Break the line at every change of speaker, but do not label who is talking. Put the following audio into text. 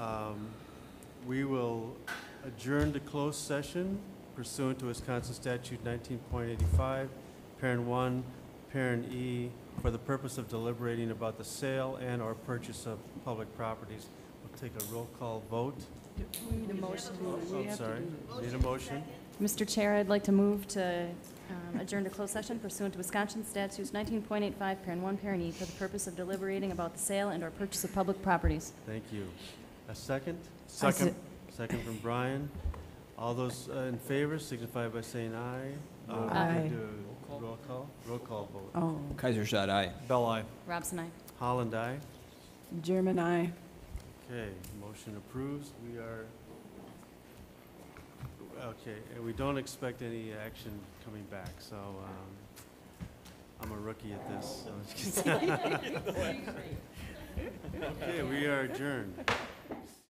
Um, we will adjourn to closed session pursuant to Wisconsin Statute 19.85, Parent 1, Parent E, for the purpose of deliberating about the sale and/or purchase of public properties. We'll take a roll call vote.
Need a motion.
Oh, I'm sorry. Need a motion?
Mr. Chair, I'd like to move to um, adjourn to closed session pursuant to Wisconsin statutes 19.85, parent 1, parent E, for the purpose of deliberating about the sale and/or purchase of public properties.
Thank you. A second?
I se-
Second. Second from Brian. All those uh, in favor signify by saying aye. Uh, we
Aye.
do a Roll call? Roll call vote.
Oh,
Kaiser shot aye.
Bell, aye.
Robson, I.
Holland, aye.
German, I.
Okay, motion approves. We are, okay, and we don't expect any action coming back, so um, I'm a rookie at this. so it's- Okay, we are adjourned.